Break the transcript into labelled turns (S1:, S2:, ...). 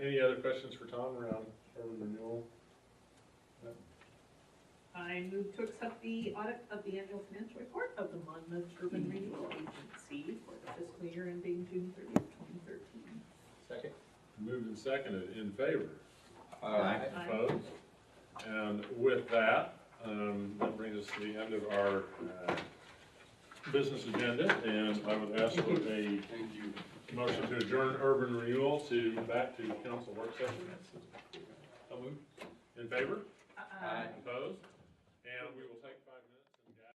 S1: Any other questions for Tom around urban renewal?
S2: I move to accept the audit of the annual financial report of the Monmouth Urban Renewal Agency for the fiscal year ending June thirtieth, twenty thirteen.
S3: Second.
S1: Moved and seconded, in favor?
S3: Aye.
S2: Aye.
S1: Opposed? And with that, um, that brings us to the end of our, uh, business agenda, and I would ask for a
S3: Thank you.
S1: motion to adjourn urban renewal to, back to council work session.
S3: I'll move.
S1: In favor?
S2: Uh,
S3: Aye.
S1: Opposed? And we will take.